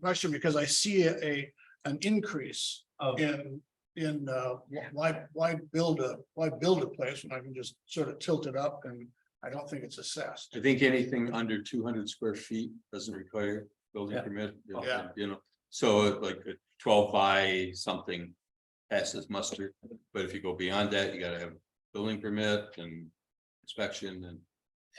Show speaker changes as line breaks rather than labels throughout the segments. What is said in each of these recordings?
question because I see a, a- an increase
Of,
in, in, uh,
Yeah.
why, why build a, why build a place when I can just sort of tilt it up and I don't think it's assessed.
I think anything under two hundred square feet doesn't require building
Yeah.
permit. you know,
Yeah.
You know, so like a twelve by something passes muster, but if you go beyond that, you gotta have building permit and inspection and.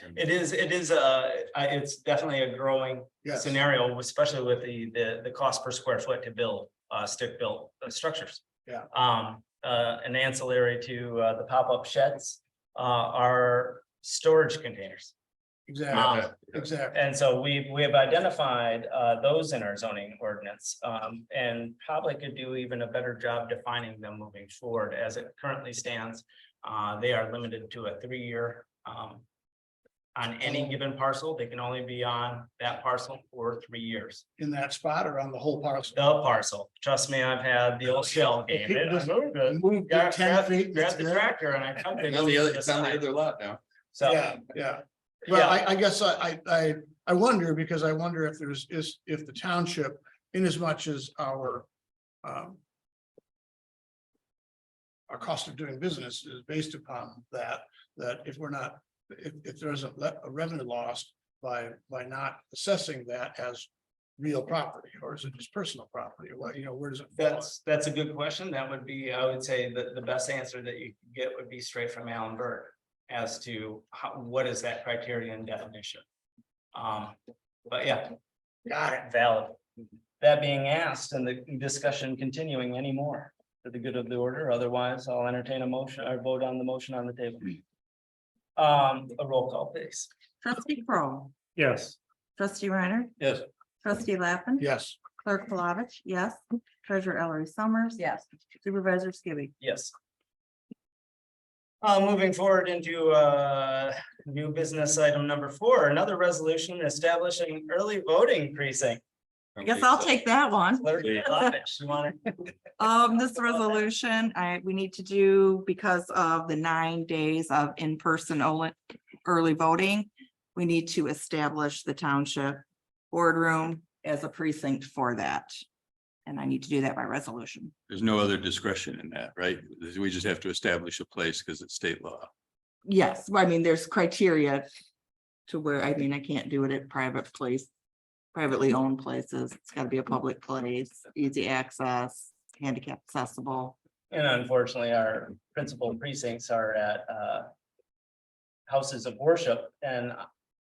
and-
it is, it is, uh, I, it's definitely a growing
Yes,
scenario, especially with the, the, the cost per square foot to build, uh, stick built uh, structures.
Yeah.
Um, uh, an ancillary to, uh, the pop-up sheds, uh, are storage containers.
exactly,
Um,
exactly.
and so we, we have identified, uh, those in our zoning ordinance, um, and probably could do even a better job defining them moving forward as it currently stands. Uh, they are limited to a three-year, um, on any given parcel, they can only be on that parcel for three years.
In that spot or on the whole parcel.
The parcel, trust me, I've had the old shell game. It- I moved it.
Move it
Grab
ten
grab-
feet.
grab
it's
the
there.
tractor and I. dumped it
And on the
over
other,
to
it's on the
side.
other lot now.
So,
Yeah, yeah. Well,
yeah,
I, I guess I, I- I, I wonder because I wonder if there's, is, if the township, in as much as our, um. Our cost of doing business is based upon that, that if we're not, if, if there isn't le- a revenue loss by, by not assessing that as. Real property, or is it just personal property, what, you know, where does it? fall?
that's, that's a good question. That would be, I would say that the best answer that you could get would be straight from Alan Berg. As to how, what is that criteria and definition? Um, but yeah. Got it. Valid. That being asked and the discussion continuing anymore for the good of the order, otherwise I'll entertain a motion or vote on the motion on the table. Um, a roll call please.
Trustee Kroll,
Yes.
trustee Reiner.
Yes.
Trustee Lappin.
Yes,
Clerk Palovich, yes. Treasurer Ellery Summers. Yes. Supervisor Skibby.
Yes. Uh, moving forward into, uh, new business item number four, another resolution establishing early voting precinct.
I guess I'll take that one.
Clerk Palovich, you wanna-
Um, this resolution, I, we need to do because of the nine days of in-person ele- early voting. We need to establish the township boardroom as a precinct for that. And I need to do that by resolution.
There's no other discretion in that, right? We just have to establish a place because it's state law.
Yes, well, I mean, there's criteria to where, I mean, I can't do it at private place, privately owned places. It's gotta be a public place, easy access, handicap accessible.
And unfortunately, our principal precincts are at, uh, houses of worship and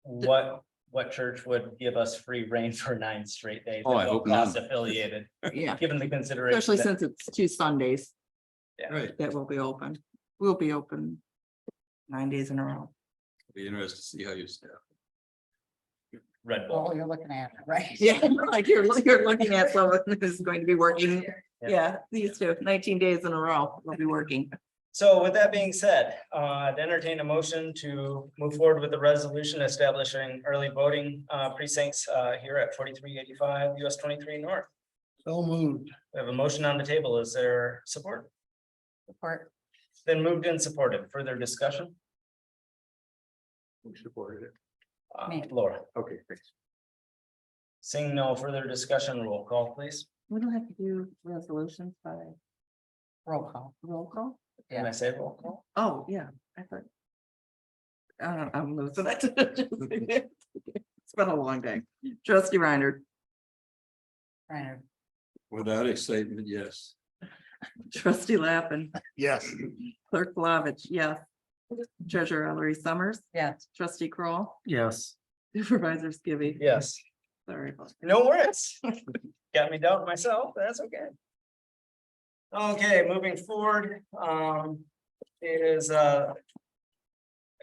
what, what church would give us free reign for nine straight days?
Oh, I
at no
hope none.
cost Affiliated,
Yeah,
given the consideration.
especially
that-
since it's two Sundays
Right.
that will be open, will be open nine days in a row.
Be interested to see how you staff.
Red Bull.
Oh, you're looking at it, right?
Yeah, like you're, you're looking at someone who's going to be working.
Yeah.
Yeah, these two, 19 days in a row, will be working.
So with that being said, uh, I'd entertain a motion to move forward with the resolution establishing early voting, uh, precincts, uh, here at forty-three eighty-five US twenty-three North.
so moved.
We have a motion on the table. Is there support?
Support.
It's Been moved and supported. Further discussion?
We supported it.
Uh,
Me.
Laura,
Okay, thanks.
seeing no further discussion, roll call please.
We don't have to do resolutions by
Roll call.
roll call?
Can I say roll call?
Oh, yeah, I thought. I don't, I'm losing it. It's been a long day. Trustee Reiner,
Reiner,
Without excitement, yes.
trustee Lappin,
Yes.
clerk Flavich, yes. Treasurer Ellery Summers,
yes.
trustee Kroll,
Yes.
supervisor Skibby.
Yes,
Sorry. about that.
no worries. Got me down myself. That's okay. Okay, moving forward, um, it is, uh.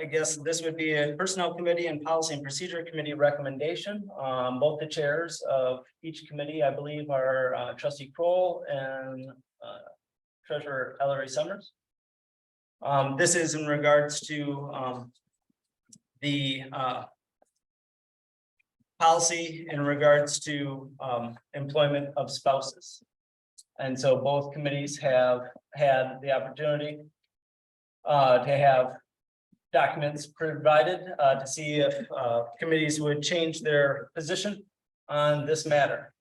I guess this would be a Personnel Committee and Policy and Procedure Committee recommendation. Um, both the chairs of each committee, I believe, are uh, trustee Kroll and uh, treasurer Ellery Summers. Um, this is in regards to, um. The, uh. Policy in regards to, um, employment of spouses. And so both committees have had the opportunity. Uh, to have documents provided, uh, to see if, uh, committees would change their position on this matter.